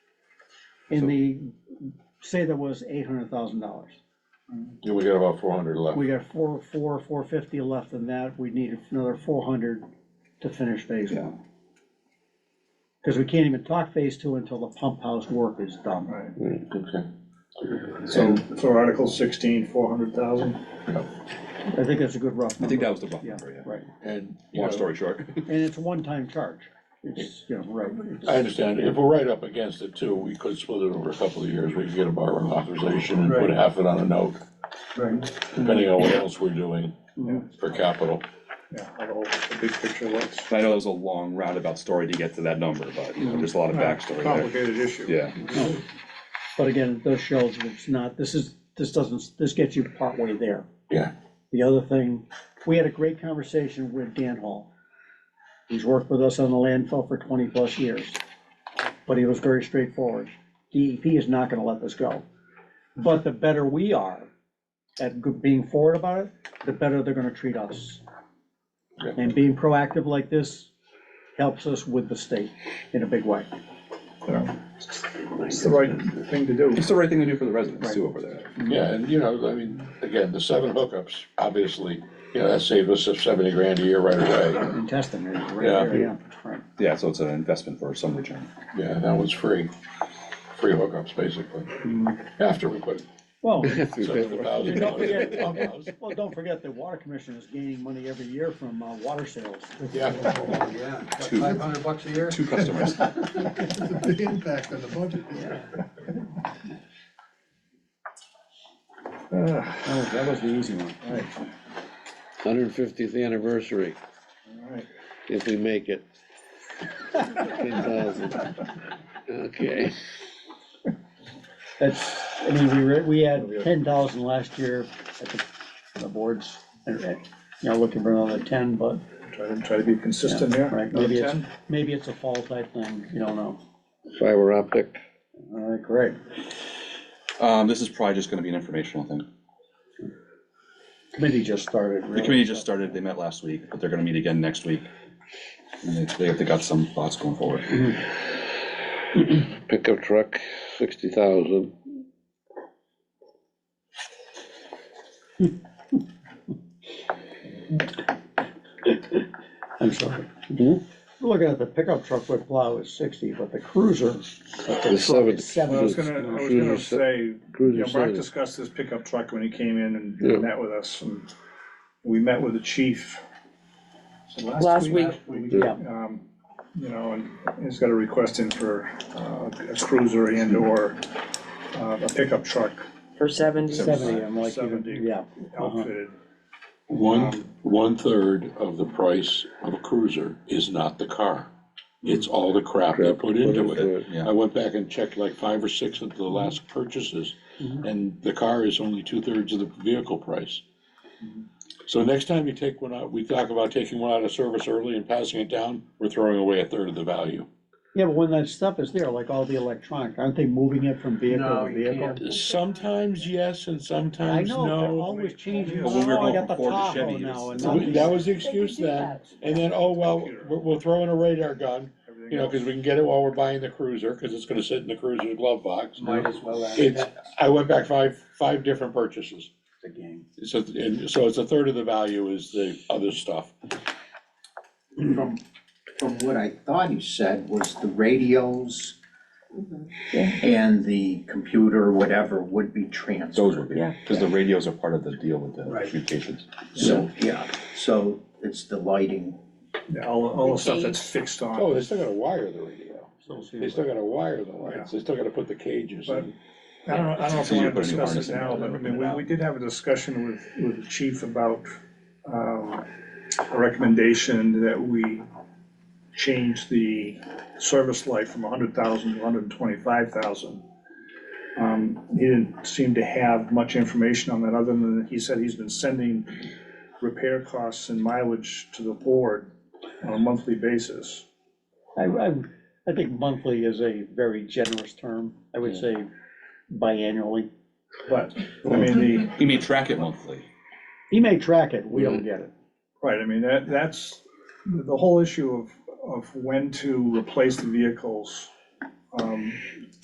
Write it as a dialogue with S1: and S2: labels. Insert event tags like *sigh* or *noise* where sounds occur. S1: in the, say that was eight hundred thousand dollars.
S2: Yeah, we got about four hundred left.
S1: We got four, four, four fifty left in that, we need another four hundred to finish phase
S3: Yeah.
S1: one. Cause we can't even talk phase two until the pump house work is done.
S3: Right,
S2: Mm, Okay.
S3: so for Article sixteen, four hundred thousand,
S1: I think that's a good rough
S4: I think
S1: number,
S4: that was the rough
S1: Yeah,
S4: number, yeah.
S1: right,
S2: And, you
S4: Long
S2: know,
S4: story short. *laughs*
S1: and it's a one-time charge, it's, you know, right.
S2: I understand, if we're right up against it too, we could split it over a couple of years, we could get a borrowing authorization and put
S3: Right.
S2: half it on a note,
S3: right,
S2: depending on what else we're doing
S1: Mhm.
S2: for capital.
S3: yeah, how the whole, the big picture looks.
S4: I know that was a long roundabout story to get to that number, but, you know, there's a lot of backstory
S3: Complicated issue.
S4: there. Yeah,
S1: But again, it does show that it's not, this is, this doesn't, this gets you partway there.
S2: Yeah.
S1: The other thing, we had a great conversation with Dan Hall. He's worked with us on the landfill for twenty-plus years, but he was very straightforward. DEP is not gonna let this go. But the better we are at g- being forward about it, the better they're gonna treat us.
S2: Yeah.
S1: And being proactive like this helps us with the state in a big way.
S3: Yeah. It's the right thing to do.
S4: it's the right thing to do for the residents too over there.
S2: Yeah, and you know, I mean, again, the seven hookups, obviously, you know, that saved us seventy grand a year right away.
S1: And testing, right
S2: Yeah.
S1: there, yeah, right.
S4: Yeah, so it's an investment for some return.
S2: Yeah, that was free, free hookups, basically, after we put
S1: Well,
S2: seven thousand dollars in the pump house.
S1: well, don't forget the water commission is gaining money every year from uh, water sales.
S2: Yeah,
S5: Yeah,
S4: Two.
S5: five hundred bucks a year,
S4: Two customers.
S5: it's a big impact on the budget.
S3: Ah,
S1: That was, Oh, that was the easy one.
S6: Hundred fiftieth anniversary,
S3: all right.
S6: if we make it. Ten thousand. Okay,
S1: That's, I mean, we were, we had ten thousand last year at the, the boards. You know, looking for another ten, but,
S3: Try to, try to be consistent here.
S1: right,
S3: Another
S1: maybe it's,
S3: 10?
S1: maybe it's a fall type thing, you don't know.
S6: fiber optic,
S1: All right, great.
S4: Um, this is probably just gonna be an informational thing.
S1: Committee just started,
S4: The
S1: really.
S4: committee just started, they met last week, but they're gonna meet again next week. And they, they- they got some thoughts going forward.
S6: pickup truck, sixty thousand.
S1: I'm sorry. Hmm? Looking at the pickup truck with plow is sixty, but the cruiser, but the truck
S6: The seven-
S1: is
S3: Well, I was
S1: seventy.
S3: gonna, I was gonna say, you know,
S6: Cruiser
S3: Mark
S6: seventy,
S3: discussed this pickup truck when he came in
S6: Yeah.
S3: and met with us, and we met with the chief. so
S7: Last week.
S1: Yeah.
S3: Um, You know, and he's got a request in for uh, a cruiser and or uh, a pickup truck
S7: for seventy.
S1: Seventy, I'm like, you-
S3: 70.
S1: yeah. Uh-huh.
S3: outfitted.
S2: One, one-third of the price of a cruiser is not the car. It's all the crap they put into it.
S4: Yeah.
S2: I went back and checked like five or six of the last purchases,
S1: Mhm.
S2: and the car is only two-thirds of the vehicle price.
S1: Mm-hmm.
S2: So next time you take one out, we talk about taking one out of service early and passing it down, we're throwing away a third of the value.
S1: Yeah, but when that stuff is there, like all the electronic, aren't they moving it from vehicle
S5: No,
S1: to
S5: you
S1: vehicle?
S5: can't.
S2: Sometimes yes and
S1: I
S2: sometimes
S1: know, they're
S2: no.
S1: always changing.
S4: Well, when we were
S1: Oh, I
S4: going
S1: got the
S4: from Ford to
S1: Tahoe
S4: Chevy,
S1: now
S4: it's-
S1: and
S2: So we-
S1: not
S2: That
S1: these.
S2: was the excuse then, and then, oh, well, we'll we'll throw in a radar gun, You know, because we can get it while we're buying the cruiser, because it's gonna sit in the cruiser glove box.
S5: Might as well add
S2: It's,
S5: that
S2: I went back five, five different purchases.
S5: to the game.
S2: So, and so it's a third of the value is the other stuff.
S5: From, from what I thought he said was the radios and the computer, whatever, would be
S4: Those would
S5: transferred.
S4: be, cause the radios are part of the deal with the
S5: Right.
S4: communications.
S5: So, yeah, so it's the lighting.
S3: Yeah, All, all the stuff that's fixed on.
S2: Oh, they still gotta wire the radio. They still gotta wire the lights. They still gotta put the cages
S3: But-
S2: in.
S3: I don't, know- I don't know if
S4: So
S3: we
S4: you
S3: want to
S4: put a new
S3: discuss
S4: harness
S3: it
S4: in
S3: now,
S4: there,
S3: but I mean, we, we did have a discussion with, with the chief about, um, a recommendation that we change the service life from hundred thousand to hundred and twenty-five thousand. Um, he didn't seem to have much information on that, other than he said he's been sending repair costs and mileage to the board on a monthly basis.
S1: I, I, I think monthly is a very generous term. I would say biannually.
S3: But, I mean, the,
S4: You may track it monthly.
S1: He may track it, we
S4: Mm-hmm.
S1: don't get it.
S3: Right, I mean, that, that's, the whole issue of, of when to replace the vehicles, um,